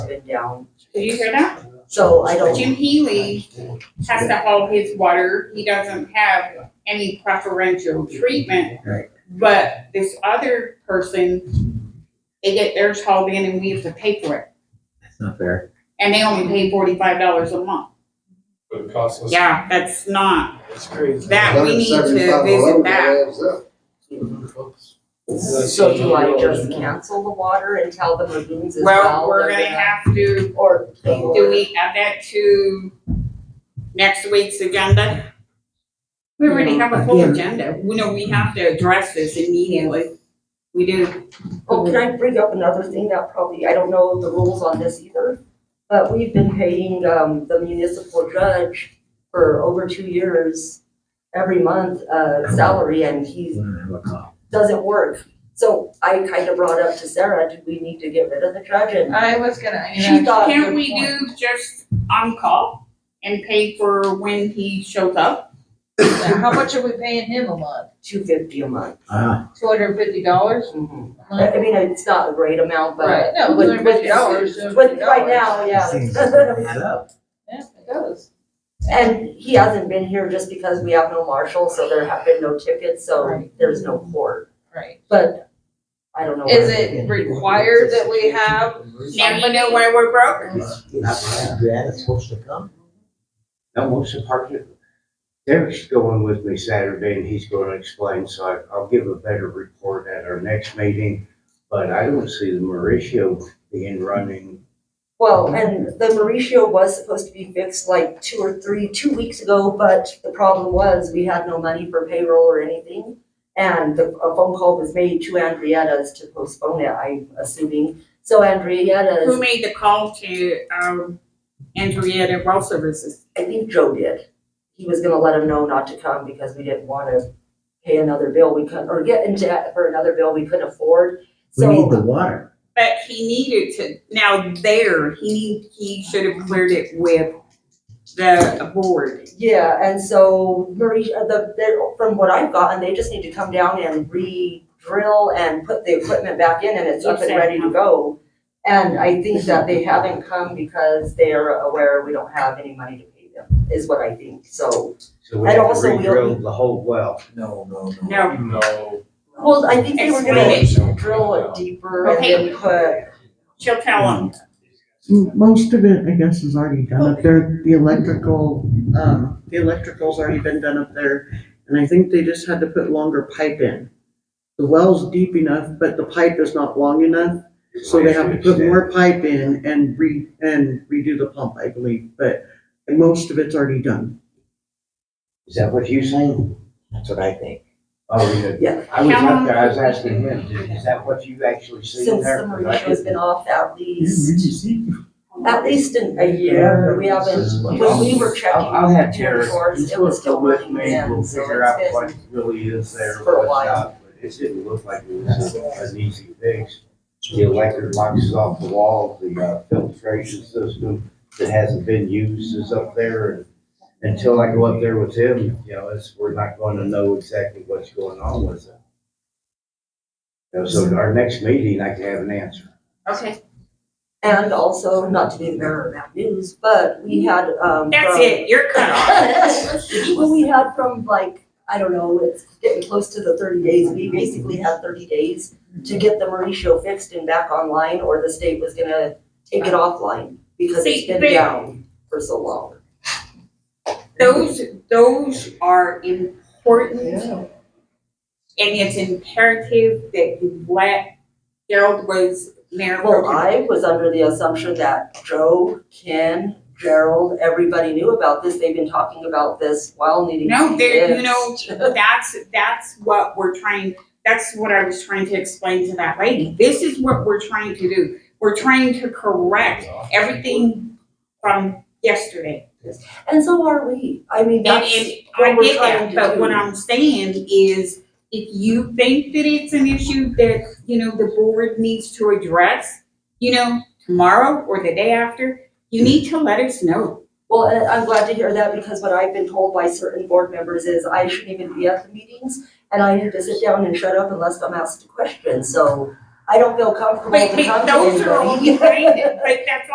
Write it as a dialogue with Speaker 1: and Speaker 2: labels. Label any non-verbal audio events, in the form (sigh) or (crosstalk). Speaker 1: been down,
Speaker 2: Did you hear that?
Speaker 1: so I don't.
Speaker 2: Jim Healy has to haul his water, he doesn't have any preferential treatment.
Speaker 1: Right.
Speaker 2: But this other person, they get theirs hauled in and we have to pay for it,
Speaker 3: That's not fair.
Speaker 2: and they only pay forty-five dollars a month.
Speaker 4: But it costs us.
Speaker 2: Yeah, that's not,
Speaker 4: It's crazy.
Speaker 2: that, we need to visit that.
Speaker 1: So do I just cancel the water and tell the lagoons as well?
Speaker 2: Well, we're
Speaker 1: they're
Speaker 2: gonna have to
Speaker 1: Or.
Speaker 2: Do we add that to next week's agenda? We already have a full
Speaker 3: Yeah.
Speaker 2: agenda. We know we have to address this immediately. We do.
Speaker 1: Oh, can I bring up another thing that probably, I don't know the rules on this either, but we've been paying, um, the municipal judge for over two years, every month, uh, salary, and
Speaker 3: We
Speaker 1: he
Speaker 3: don't have a call.
Speaker 1: doesn't work. So I kind of brought up to Sarah, do we need to get rid of the judge? And
Speaker 5: I was gonna, I
Speaker 1: she
Speaker 5: mean, that's-
Speaker 1: thought.
Speaker 2: Can't we do just on-call and pay for when he shows up?
Speaker 5: how much are we paying him a month?
Speaker 1: Two fifty a month.
Speaker 3: Ah,
Speaker 5: Two hundred and fifty dollars
Speaker 1: Mhm.
Speaker 5: a
Speaker 1: I I
Speaker 5: month?
Speaker 1: mean, it's not a great amount, but.
Speaker 5: Mm-hmm. Right, no,
Speaker 1: with-
Speaker 5: two hundred and fifty dollars,
Speaker 1: with- But right now, (laughs)
Speaker 3: seems
Speaker 1: yeah.
Speaker 3: to be up.
Speaker 5: Yeah, it does.
Speaker 1: And he hasn't been here just because we have no marshal, so there have been no tickets, so
Speaker 5: Right.
Speaker 1: there's no court.
Speaker 5: Right.
Speaker 1: But I don't know.
Speaker 5: Is it required that we have?
Speaker 2: Now you know why we're broke?
Speaker 6: Not bad, it's supposed to come. No, most of the park, Derek's going with me Saturday and he's gonna explain, so I, I'll give a better report at our next meeting. But I don't see the Mauricio being running.
Speaker 1: Well, and the Mauricio was supposed to be fixed like two or three, two weeks ago, but the problem was we had no money for payroll or anything. And the, a phone call was made to Andrietta's to postpone it, I'm assuming. So
Speaker 2: Who
Speaker 1: Andrietta's,
Speaker 2: made the call to, um, Andrea Well Services?
Speaker 1: I think Joe did. He was gonna let him know not to come because we didn't wanna pay another bill we couldn't, or get into debt for another bill we couldn't afford.
Speaker 3: We need
Speaker 1: So,
Speaker 3: the water.
Speaker 2: But he needed to, now there, he need, he should have cleared it with the board.
Speaker 1: yeah, and so Mauricio, the, they're, from what I've gotten, they just need to come down and re-drill and put the equipment back in and it's up and ready to go. And I think that they haven't come because they are aware we don't have any money to pay them, is what I think, so.
Speaker 6: So we
Speaker 1: And
Speaker 6: have to
Speaker 1: also we'll-
Speaker 6: re-drill the whole well.
Speaker 3: No, no,
Speaker 2: No,
Speaker 4: No.
Speaker 1: Well, I think they were
Speaker 2: Explain
Speaker 1: gonna drill it deeper and then put,
Speaker 2: she'll tell him.
Speaker 1: Mm.
Speaker 7: Most of it, I guess, is already done up there. The electrical, um, the electrical's already been done up there. And I think they just had to put longer pipe in. The well's deep enough, but the pipe is not long enough, so they have to put more pipe in and re, and redo the pump, I believe, but most of it's already done.
Speaker 6: Is that what you're saying?
Speaker 3: That's what I think.
Speaker 6: Oh, yeah.
Speaker 1: Yeah.
Speaker 6: I was up there, I was asking him, is that what you actually see
Speaker 1: since the
Speaker 6: there?
Speaker 1: Mauricio's been off at least,
Speaker 3: It's
Speaker 1: at least in a year, we haven't When we were checking.
Speaker 6: I'll, I'll have
Speaker 1: Terry
Speaker 6: Derek, he's
Speaker 1: it was
Speaker 6: supposed to
Speaker 1: still
Speaker 6: come with
Speaker 1: working
Speaker 6: me,
Speaker 1: then,
Speaker 6: we'll
Speaker 1: so
Speaker 6: figure
Speaker 1: it's
Speaker 6: out
Speaker 1: been-
Speaker 6: what really is there,
Speaker 1: for a
Speaker 6: what's
Speaker 1: while.
Speaker 6: not. But it didn't look like it was a- an easy fix. The electric box is off the wall, the uh, filtration system that hasn't been used is up there. and Until I go up there with him, you know, it's, we're not gonna know exactly what's going on with it. You know, So at our next meeting, I can have an answer.
Speaker 2: Okay.
Speaker 1: And also, not to be the bearer of bad news, but we had, um.
Speaker 2: That's
Speaker 1: from-
Speaker 2: it, you're cut off.
Speaker 1: (laughs) Well, we had from like, I don't know, it's getting close to the thirty days, we basically had thirty days to get the Mauricio fixed and back online, or the state was gonna take it offline because it's
Speaker 2: See,
Speaker 1: been
Speaker 2: but-
Speaker 1: down for so long.
Speaker 2: Those, those are important. And it's imperative that you let, Gerald was mayor pro
Speaker 1: Well,
Speaker 2: tem.
Speaker 1: I was under the assumption that Joe, Ken, Gerald, everybody knew about this, they've been talking about this while needing to
Speaker 2: No,
Speaker 1: be
Speaker 2: there, you
Speaker 1: fixed.
Speaker 2: know, that's, that's what we're trying, that's what I was trying to explain to that lady. This is what we're trying to do. We're trying to correct everything from yesterday.
Speaker 1: And so are we, I mean,
Speaker 2: And,
Speaker 1: that's
Speaker 2: and I
Speaker 1: what we're
Speaker 2: get
Speaker 1: trying
Speaker 2: that,
Speaker 1: to
Speaker 2: but
Speaker 1: do.
Speaker 2: what I'm saying is, if you think that it's an issue that, you know, the board needs to address, you know, tomorrow or the day after, you need to let us know.
Speaker 1: Well, and I'm glad to hear that because what I've been told by certain board members is I shouldn't even be at the meetings and I need to sit down and shut up unless I'm asked a question, so I don't feel comfortable
Speaker 2: But,
Speaker 1: to
Speaker 2: but
Speaker 1: come to
Speaker 2: those are
Speaker 1: (laughs)
Speaker 2: all
Speaker 1: anybody.
Speaker 2: behind it, but that's